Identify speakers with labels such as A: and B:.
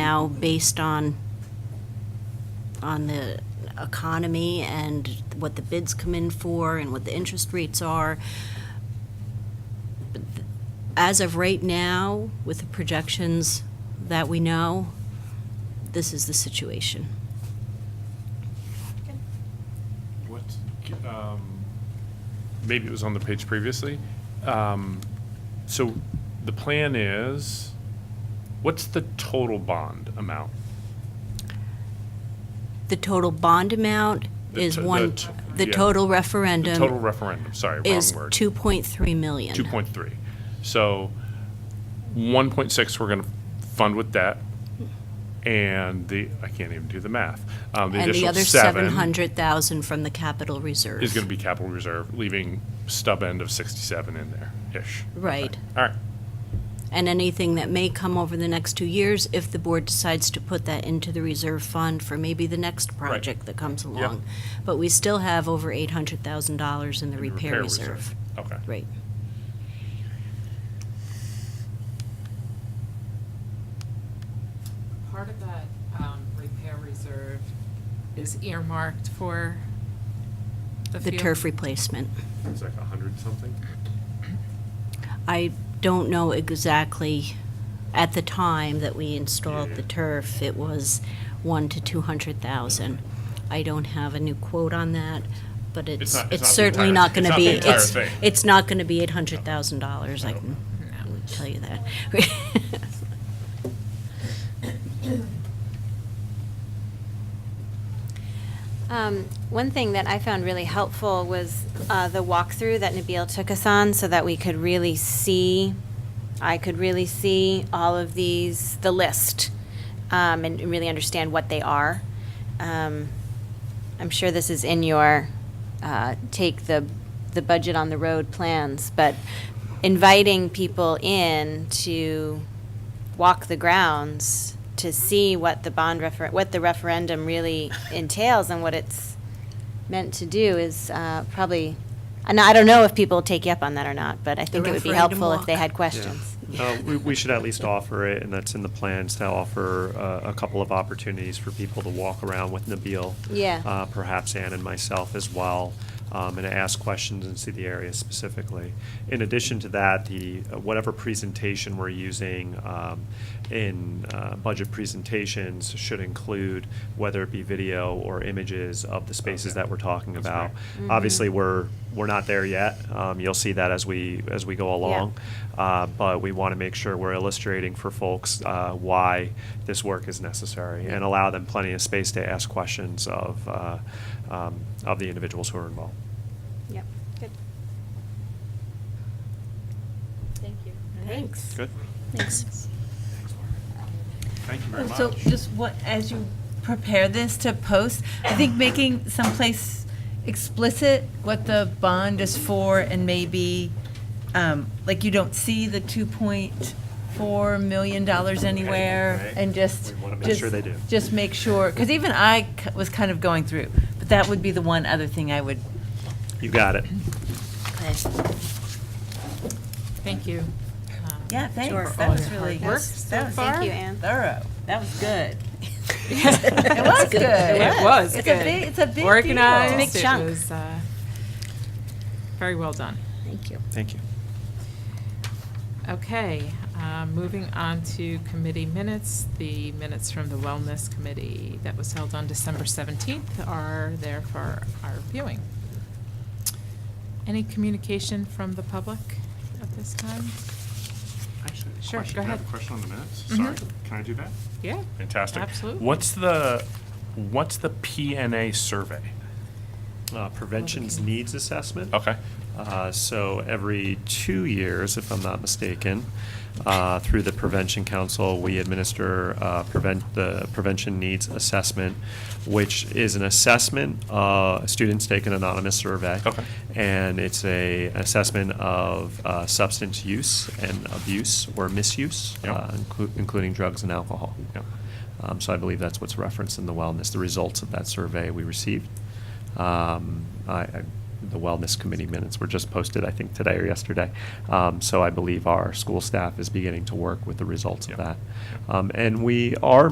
A: now based on, on the economy and what the bids come in for and what the interest rates are. But th- As of right now, with the projections that we know, this is the situation.
B: What, um, maybe it was on the page previously. Um, So the plan is, what's the total bond amount?
A: The total bond amount
B: The
A: is
B: to- the
A: one,
B: to-
A: the
B: yeah.
A: total
B: The total
A: referendum
B: referendum, sorry,
A: is
B: wrong word.
A: 2.3 million.
B: 2.3. So 1.6, we're going to fund with debt, and the, I can't even do the math. Um,
A: And the
B: additional
A: other
B: seven
A: 700,000 from the capital reserve.
B: Is going to be capital reserve, leaving stub end of 67 in there-ish.
A: Right.
B: All right,
A: And anything that may come over the next two years, if the board decides to put that into the reserve fund for maybe the next project that comes along. But we still have over $800,000 in the repair reserve.
B: Okay.
A: Right.
C: Part of that um, repair reserve is earmarked for the
A: The
C: field.
A: turf replacement.
B: It's like 100 something?
A: I don't know exactly, at the time that we installed the turf, it was one to two hundred thousand. I don't have a new quote on that, but it's,
B: not- it's
A: it's
B: not the
A: certainly
B: entire-
A: not gonna
B: it's not
A: be,
B: the entire
A: it's,
B: thing.
A: it's not gonna be eight hundred thousand dollars, I can tell you that.
D: Um, One thing that I found really helpful was uh, the walkthrough that Nabil took us on so that we could really see, I could really see all of these, the list, um, and really understand what they are. Um, I'm sure this is in your, uh, take the, the budget on the road plans, but inviting people in to walk the grounds to see what the bond refer, what the referendum really entails and what it's meant to do is uh, probably, and I don't know if people take you up on that or not, but I think it would be
A: referendum
D: helpful if they
A: walk.
D: had questions.
E: Uh, we, we should at least offer it, and that's in the plans to offer uh, a couple of opportunities for people to walk around with Nabil.
D: Yeah.
E: Uh, perhaps Ann and myself as well, um, and ask questions and see the area specifically. In addition to that, the uh, whatever presentation we're using um, in uh, budget presentations should include whether it be video or images of the spaces
B: Okay.
E: that we're talking
B: That's
E: about.
B: great.
E: Obviously, we're we're not there yet. Um, you'll see that as we as we go along. Uh, but we want to make sure we're illustrating for folks uh, why this work is necessary and allow them plenty of space to ask questions of, uh, um, of the individuals who are involved.
D: Yep, good.
F: Thank you.
D: Thanks.
E: Good?
A: Thanks.
B: Thank you very much.
F: So just what, as you prepare this to post, I think making someplace explicit what the bond is for and maybe, um, like you don't see the two point four million dollars anywhere
E: right.
F: and just.
E: We wanna make
F: just-
E: sure they do.
F: Just make sure, because even I c- was kind of going through, but that would be the one other thing I would,
E: You got it.
C: Thank you. um,
D: Sure.
F: yeah, thanks, that was
C: All your
F: really.
C: hard work
F: that was-
D: so far. Thank you, Ann.
F: Thorough, that was good. It was good.
C: It was
F: It's a
C: good.
F: big- it's a big deal.
C: Organized.
D: It's a big
C: It
D: chunk.
C: was, uh, Very well done.
D: Thank you.
E: Thank you.
C: Okay, uh, moving on to committee minutes, the minutes from the Wellness Committee that was held on December 17th are there for our viewing. Any communication from the public at this time?
B: Actually,
C: Sure,
B: question-
C: go
B: can I have
C: ahead.
B: a question on the minutes? Mm-hmm.
C: Mhm.
B: Sorry, can I do that?
C: Yeah?
B: Fantastic.
C: Absolutely.
B: What's the, what's the PNA survey?
E: Uh, Prevention's needs assessment.
B: Okay.
E: Uh, So every two years, if I'm not mistaken, uh, through the Prevention Council, we administer uh, prevent, the Prevention Needs Assessment, which is an assessment, uh, students take an anonymous survey.
B: Okay.
E: And it's a assessment of uh, substance use and abuse or misuse,
B: Yep.
E: uh, inclu- including drugs and alcohol.
B: Yep.
E: Um, So I believe that's what's referenced in the wellness, the results of that survey we received. Um, I, I, the wellness committee minutes were just posted, I think, today or yesterday. Um, so I believe our school staff is beginning to work with the results of
B: Yeah.
E: that. Um, and we are